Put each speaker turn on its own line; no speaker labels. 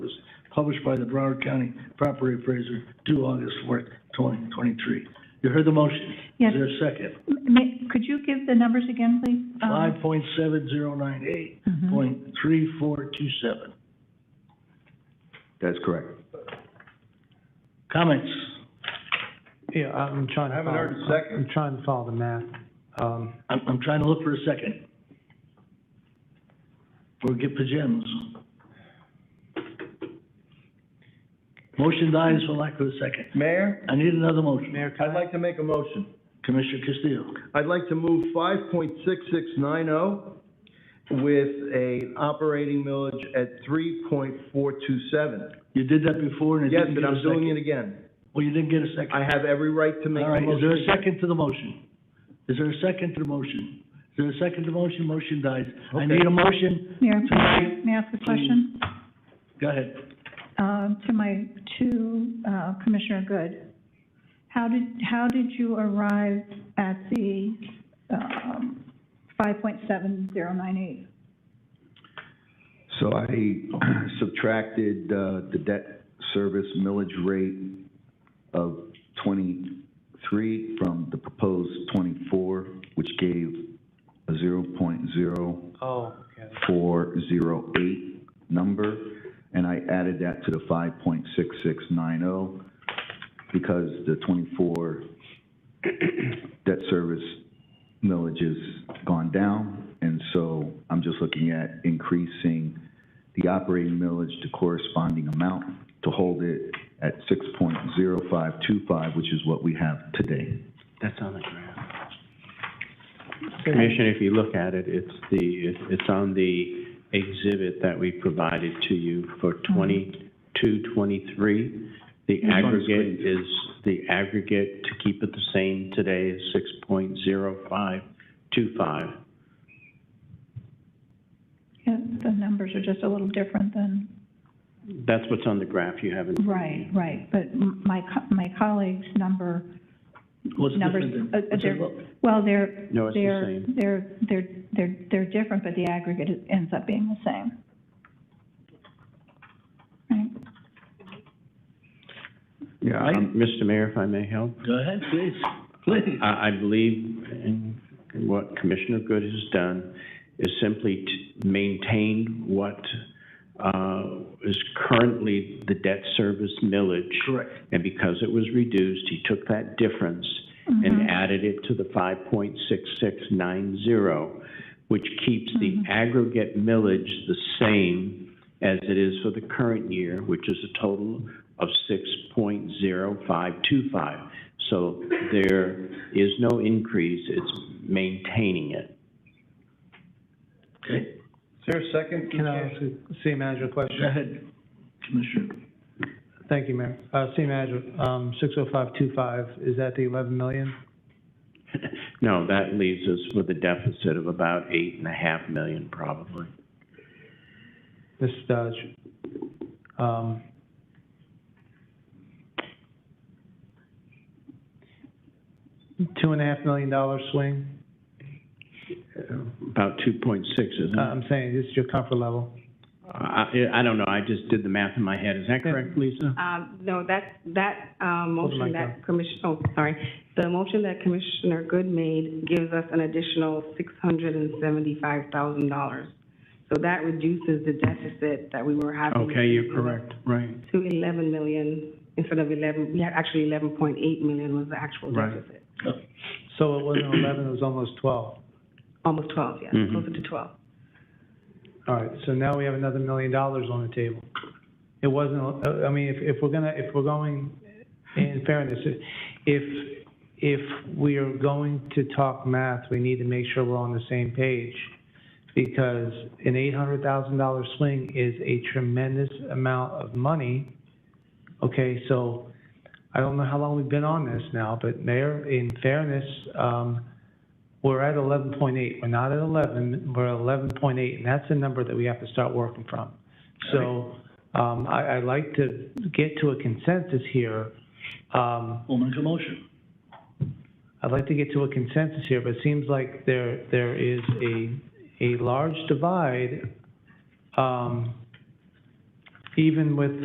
published by the Broward County Property Appraiser due August fourth, twenty twenty-three. You heard the motion.
Yes. Uh-huh.
Is there a second?
M- may- Could you give the numbers again, please? Um,
Five point seven zero nine eight
mhm.
point three four two seven.
That's correct.
Comments?
Yeah, I'm trying to follow.
I haven't heard a second.
I'm trying to follow the math. Um,
I'm, I'm trying to look for a second. Or get pajamas. Motion dies for lack of a second.
Mayor,
I need another motion.
Mayor, can
I'd
I,
like to make a motion.
Commissioner Castillo.
I'd like to move five point six six nine oh with a operating millage at three point four two seven.
You did that before and it
Yes,
didn't get
and
a
I'm doing
second.
it again.
Well, you didn't get a second.
I have every right to make
All
a
right, is there a
motion.
second to the motion? Is there a second to the motion? Is there a second to the motion? Motion dies. I need a motion.
Mayor,
Tonight,
may I ask a question?
Go ahead.
Um, To my, to uh, Commissioner Good. How did, how did you arrive at the um, 5.7098?
So I subtracted, uh, the debt service millage rate of twenty-three from the proposed twenty-four, which gave a zero point zero
oh, okay.
four zero eight number, and I added that to the five point six six nine oh, because the twenty-four debt service millage has gone down, and so I'm just looking at increasing the operating millage to corresponding amount to hold it at six point zero five two five, which is what we have today.
That's on the graph. Commissioner, if you look at it, it's the, it- it's on the exhibit that we provided to you for twenty-two, twenty-three. The
Mm-hmm. on the
aggregate
screen.
is, the aggregate, to keep it the same today, is six point zero five two five.
Yeah, Uh, The numbers are just a little different than,
That's what's on the graph you haven't.
right, right. But m- my, co- my colleague's number,
What's
Numbers,
different
uh, uh,
than? what's
they're-
involved?
well, they're,
No, it's the
they're,
same.
they're, they're, they're, they're different, but the aggregate is- ends up being the same. Right?
Yeah,
Um, Mr. Mayor, if I may help?
Go ahead, please, please.
Uh,
I, I believe in what Commissioner Good has done is simply to maintain what, uh, is currently the debt service millage.
Correct.
And because it was reduced, he took that difference and added it to the five point six six nine zero, which keeps the aggregate millage the same as it is for the current year, which is a total of six point zero five two five. So there is no increase, it's maintaining it.
Okay,
Is there a second?
Can I ask a city manager a
go
question?
ahead, Commissioner.
Thank you, Mayor. Uh, city manager, um, six oh five two five, is that the eleven million?
No, that leaves us with a deficit of about eight and a half million probably.
Ms. Dodge? Um, two and a half million dollar swing?
About two point six, isn't
Uh,
it?
I'm saying, this is your comfort level.
I, I don't know, I just did the math in my head, is that correct, Lisa?
Um, no, that, that, um,
Hold the
motion
mic
that Commissioner, oh, sorry. The motion that Commissioner Good made gives us an additional six hundred and seventy-five thousand dollars. So that reduces the deficit that we were having.
Okay, you're correct, right.
To eleven million instead of eleven, yeah, actually eleven point eight million was the actual
Right.
deficit.
So it wasn't eleven, it was almost twelve.
Almost twelve, yeah,
Mhm.
closer to twelve.
All right, so now we have another million dollars on the table. It wasn't, uh, I mean, if, if we're gonna, if we're going, in fairness, if, if we are going to talk math, we need to make sure we're on the same page. Because an eight hundred thousand dollar swing is a tremendous amount of money. Okay, so I don't know how long we've been on this now, but Mayor, in fairness, um, we're at eleven point eight, we're not at eleven, we're at eleven point eight, and that's a number that we have to start working from. So, um, I, I'd like to get to a consensus here. Um,
We'll make a motion.
I'd like to get to a consensus here, but it seems like there, there is a, a large divide, um, even with